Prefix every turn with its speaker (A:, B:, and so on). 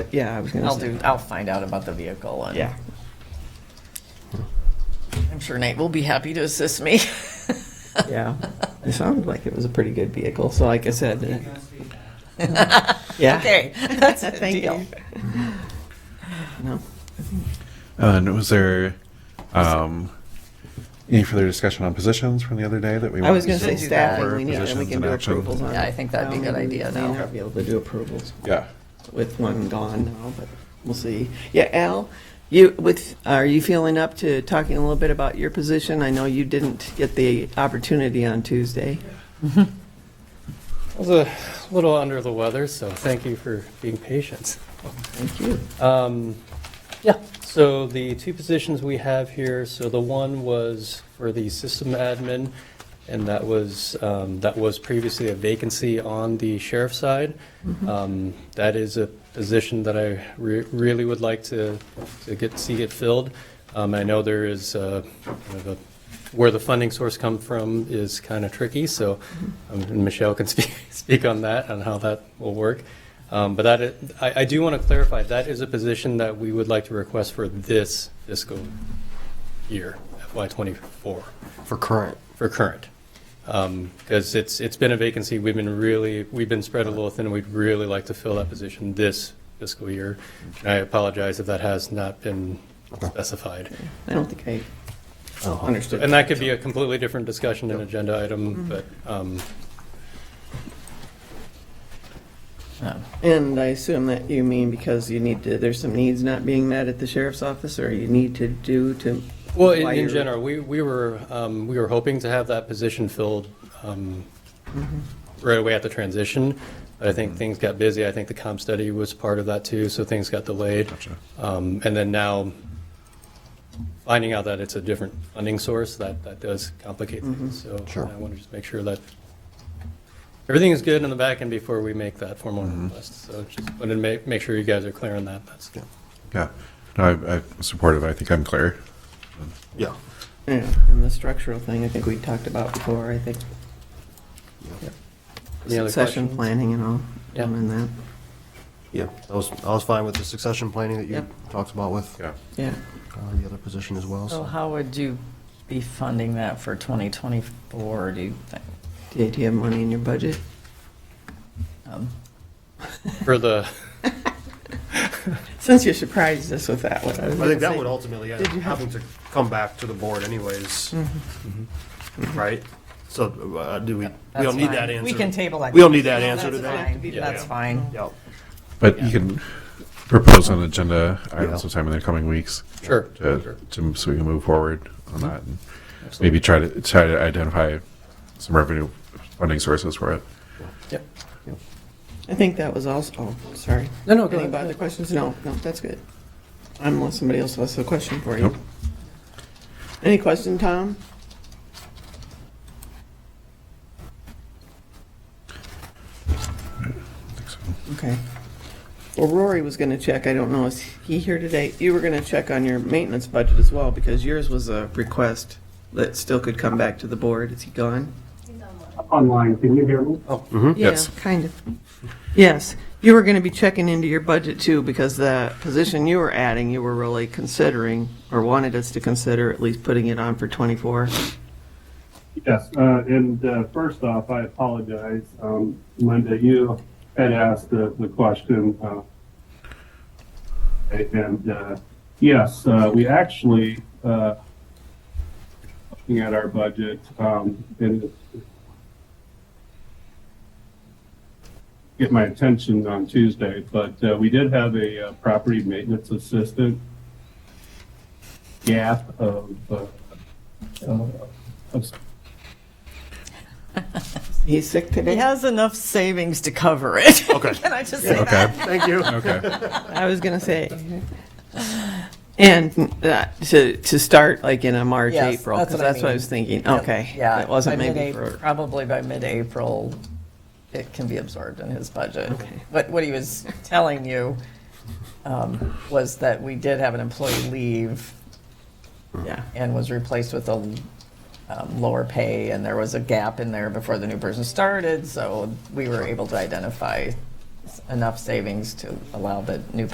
A: yeah, I was gonna
B: I'll
A: say.
B: do, I'll find out about the vehicle and.
A: Yeah.
B: I'm sure Nate will be happy to assist me.
A: Yeah, it sounded like it was a pretty good vehicle. So, like I said, uh, yeah,
B: Okay, that's a
A: Thank
B: deal.
A: you. no,
C: Uh, And was there um, any further discussion on positions from the other day that we?
A: I was going
C: wanted to
A: to say
B: We
C: do?
B: should do
A: staffing.
C: Or
A: We need and we
C: positions
A: can
C: in
A: do
C: action?
A: approvals on.
B: Yeah, I think that'd be a
A: Well,
B: good
A: maybe
B: idea
A: we
B: now.
A: may not be able to do approvals
C: Yeah,
A: with one gone now, but we'll see. Yeah, Al, you with are you feeling up to talking a little bit about your position? I know you didn't get the opportunity on Tuesday.
D: I was a little under the weather, so thank you for being patient.
A: Thank you.
D: Um, Yeah, so the two positions we have here, so the one was for the system admin, and that was, um, that was previously a vacancy on the sheriff's side. Um, That is a position that I re- really would like to, to get, see get filled. Um, I know there is, uh, kind of a- where the funding source come from is kind of tricky, so um, and Michelle can speak, speak on that, on how that will work. Um, But that, is- I, I do want to clarify, that is a position that we would like to request for this fiscal year, FY '24,
E: For current.
D: for current. Because it's, it's been a vacancy, we've been really, we've been spread a little thin, we'd really like to fill that position this fiscal year. And I apologize if that has not been specified.
A: I don't think I understood.
D: And that could be a completely different discussion and agenda item, but um,
A: And I assume that you mean because you need to, there's some needs not being met at the sheriff's office, or you need to do to.
D: Well, in,
A: why
D: in
A: you're-
D: general, we, we were, um, we were hoping to have that position filled, um,
C: Mm-hmm.
D: right away at the transition. But I think things got busy. I think the comp study was part of that too, so things got delayed.
C: Gotcha.
D: Um, and then now finding out that it's a different funding source, that, that does complicate things.
C: Mm-hmm.
D: So
E: Sure.
D: I want to just make sure that everything is good in the back end before we make that formal request. So just wanted to make, make sure you guys are clear on that. That's,
C: Mm-hmm. yeah. No, I, I'm supportive. I think I'm clear.
E: Yeah.
A: Yeah, and the structural thing, I think we talked about before, I think.
D: Any other
A: Succession
D: questions?
A: planning and all,
D: Yeah.
A: and that,
E: Yeah, I was, I was fine with the succession planning that you
A: Yep.
E: talked about with
C: Yeah.
A: yeah.
E: uh, the other position as well,
B: So
E: so.
B: how would you be funding that for 2024, do you think?
A: Do you- do you have money in your budget?
B: Um,
D: For the,
A: Since you surprised us with that one. was
E: I think
A: gonna
E: that
A: say-
E: would ultimately end
A: Did
E: up
A: you have-
E: having to come back to the board anyways,
B: Mm-hmm.
E: Mm-hmm. right? So uh, do we, we
B: that's
E: don't need
B: fine.
E: that answer.
B: We can table that.
E: We don't need that answer
B: That's
E: today.
B: fine.
A: Yeah.
B: That's fine.
E: Yep,
C: But you can propose an agenda item
E: Yeah.
C: sometime in the coming weeks.
D: Sure.
C: To, to, so we can move forward on that and maybe try to try to identify some revenue funding sources for it.
D: yep.
A: I think that was also, oh, sorry.
D: No, no, go
A: Any
D: ahead.
A: other questions? No, no, that's good. Unless somebody else has a question for you.
C: Nope.
A: Any question, Tom?
C: I think so.
A: Okay. Well, Rory was gonna check, I don't know, is he here today? You were gonna check on your maintenance budget as well, because yours was a request that still could come back to the board. Is he gone?
F: online. Can you hear me?
E: Oh, mm-hmm.
C: Yes.
A: Yeah, kind of. Yes, you were gonna be checking into your budget too, because the position you were adding, you were really considering, or wanted us to consider at least putting it on for twenty-four.
F: Yes. Uh, and uh, first off, I apologize. Um, Linda, you had asked the, the question. Uh, and uh, yes, uh, we actually, uh, looking at our budget, um, and get my attention on Tuesday, but uh, we did have a uh, property maintenance assistant gap of uh, uh, of
A: He's sick
B: He
A: today?
B: has enough savings to cover it.
E: Okay.
B: Can I just say that?
C: Okay.
E: thank you.
C: Okay.
A: I was gonna say. And that, to, to start like in a March,
B: Yes,
A: April,
B: that's
A: because
B: what I
A: that's what I
B: mean.
A: was thinking, okay.
B: Yeah.
A: It wasn't
B: by
A: maybe
B: mid-April-
A: for.
B: Probably by mid-April, it can be absorbed in his budget.
A: Okay.
B: But what he was telling you um, was that we did have an employee leave
A: Yeah,
B: and was replaced with a um, lower pay, and there was a gap in there before the new person started, so we were able to identify enough savings to allow the new